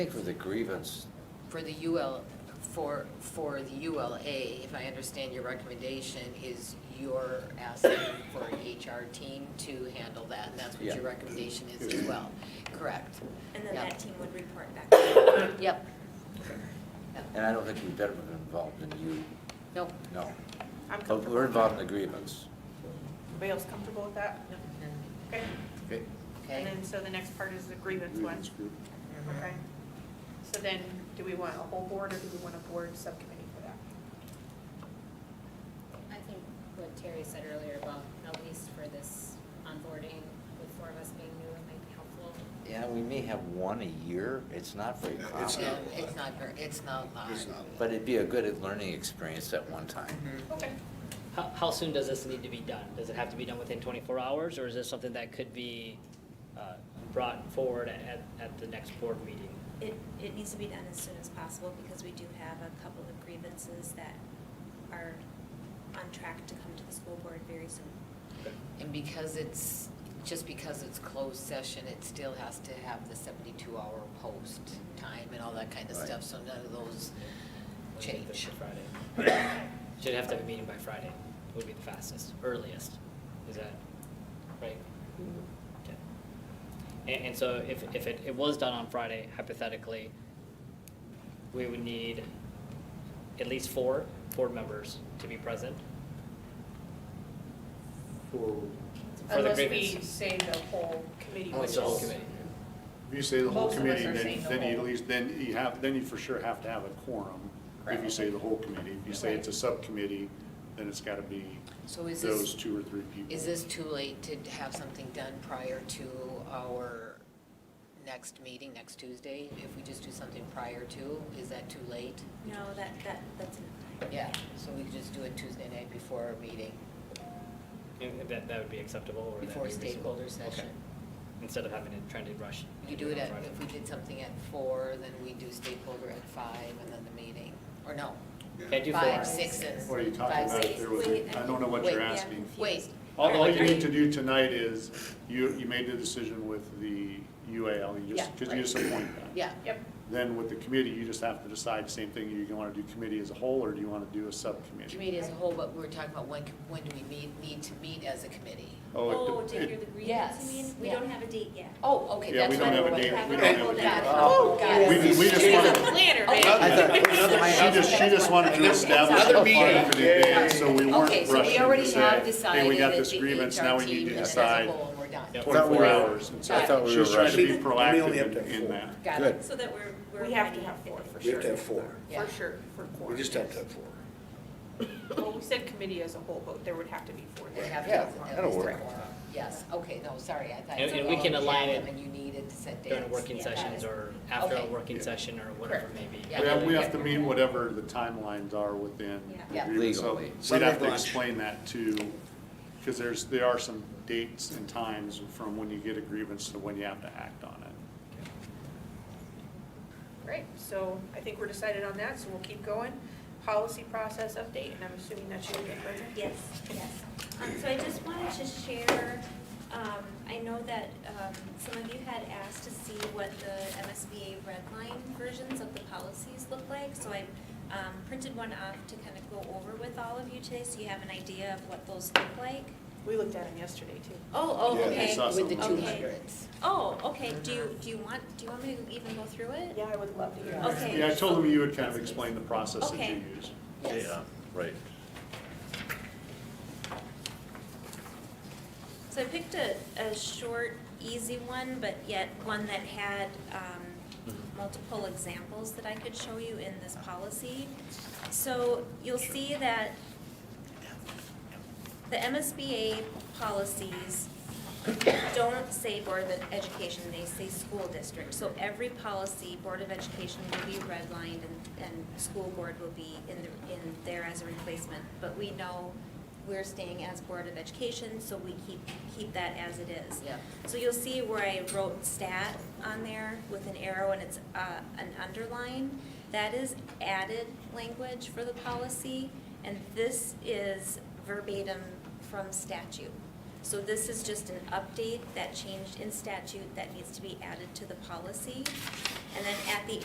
For the grievance, for the UL, for, for the ULA, if I understand your recommendation, is you're asking for a HR team to handle that, and that's what Yeah. your recommendation is as well, correct? And then Yeah. that team would report back. to you. Yep. and I don't think we've ever been involved in you, Nope. no. I'm But comfortable. we're involved in the grievance. Everybody else comfortable with that? Okay. Okay. Okay. And then, so the next part is the grievance one. Okay. So then, do we want a whole board or do we want a board subcommittee for that? I think what Terry said earlier about, at least for this onboarding, with four of us being new, it might be helpful. Yeah, we may have one a year, it's not very common, It's Yeah, not a lot. Um, It's not, ver- it's not live. It's not. but it'd be a good learning experience at one time. Okay. How, how soon does this need to be done? Does it have to be done within 24 hours, or is this something that could be uh, brought forward at, at the next board meeting? It, it needs to be done as soon as possible because we do have a couple of grievances that are on track to come to the school board very soon. And because it's, just because it's closed session, it still has to have the seventy-two hour post time and all that kind of Right. stuff, so none of those Wednesday, change. Thursday, Friday. Should have to have a meeting by Friday, would be the fastest, earliest. Is that right? Mm-hmm. Okay. And, and so if, if it, it was done on Friday, hypothetically, we would need at least four board members to be present For, for the Unless we grievance. say the whole committee. Oh, Unless Oh, the whole which is- committee. if you say the whole Most of us committee, are saying then, the then you at whole. least, then you have, then you for sure have to have a quorum. If you Right. say the whole committee, if you say it's a Right. subcommittee, then it's gotta be So is this? those two or three people. Is this too late to have something done prior to our next meeting, next Tuesday? If we just do something prior to, is that too late? No, that, that, that's enough. Yeah, so we could just do it Tuesday night before our meeting, And and that, that would be acceptable or would that before be reasonable? stakeholder Okay. session. Instead of having to try to rush. We could and do it on at, Friday. if we did something at four, then we do stakeholder at five and then the meeting, or no, Can't do four. five, six, and What are you talking five, about? six. If there was, a- Wait, I don't know what wait, you're yeah. asking. Wait, All- all All you you- need to do tonight is, you, you made the decision with the UAL, you just, Yeah, because right. you just appoint them. yeah, Yep. Then with the committee, you just have to decide, same thing, you want to do committee as a whole, or do you want to do a subcommittee? committee as a whole, but we're talking about when, when do we meet, need to meet as a committee? it Oh, de- to hear it- the grievance, Yes, you mean? We yeah. don't have a date yet. Oh, okay, Yeah, that's we why don't have we're a wondering. date, we wondering. don't have a date. Got it. Oh, Got it. We, we just wanted, Planner, Okay. man. she just, she just wanted to establish a Another plan for the day, so we Okay, weren't so we rushing already to have say, decided hey, we got that this the grievance, HR now we need team to as a decide whole and we're done. Yep. Thought we were- twenty-four hours. And so I thought we were She's trying to be rushing. We only have to proactive have in four. that. Got Good. it. So that we're, we're. We have to ready have if four, it- for We have sure. to have four. Yeah. For sure, for four. We just have to have four. Well, we said committee as a whole, but there would have to be four. We have Yeah, to- that'll at least work. a quorum. Yes, okay, no, sorry, I thought. And- you and we all can had align them it And you needed to set dates. During working Yeah, got sessions it. or after a Okay. working Yeah. session or whatever Correct. maybe. Yeah. We have, we have to meet whatever the timelines are within the Yeah. agreement, so Legally. we'd have Sunday to lunch. explain that to, because there's, there are some dates and times from when you get a grievance to when you have to act on it. Great, so I think we're decided on that, so we'll keep going. Policy process update, and I'm assuming that's you again, Brenda? Yes, yes. Um, so I just wanted to share, um, I know that, um, some of you had asked to see what the MSBA redline versions of the policies look like. So I, um, printed one off to kind of go over with all of you today, so you have an idea of what those look like. We looked at them yesterday, too. Oh, oh, Yeah, I okay. saw With the Awesome. two Okay. hundreds. Oh, okay, do you, do you want, do you want me to even go through it? Yeah, I would love to hear. that. Okay. Yeah, I told them you would kind of explain the process that you Okay. use. Yes. right. So I picked a, a short, easy one, but yet one that had um, multiple examples that I could show you in this policy. So you'll see that the MSBA policies don't say Board of Education, they say school district. So every policy, Board of Education will be redlined and, and school board will be in, the- in there as a replacement. But we know we're staying as Board of Education, so we keep, keep that as it is. Yeah. So you'll see where I wrote stat on there with an arrow and it's uh, an underline. That is added language for the policy, and this is verbatim from statute. So this is just an update that changed in statute that needs to be added to the policy. And then at the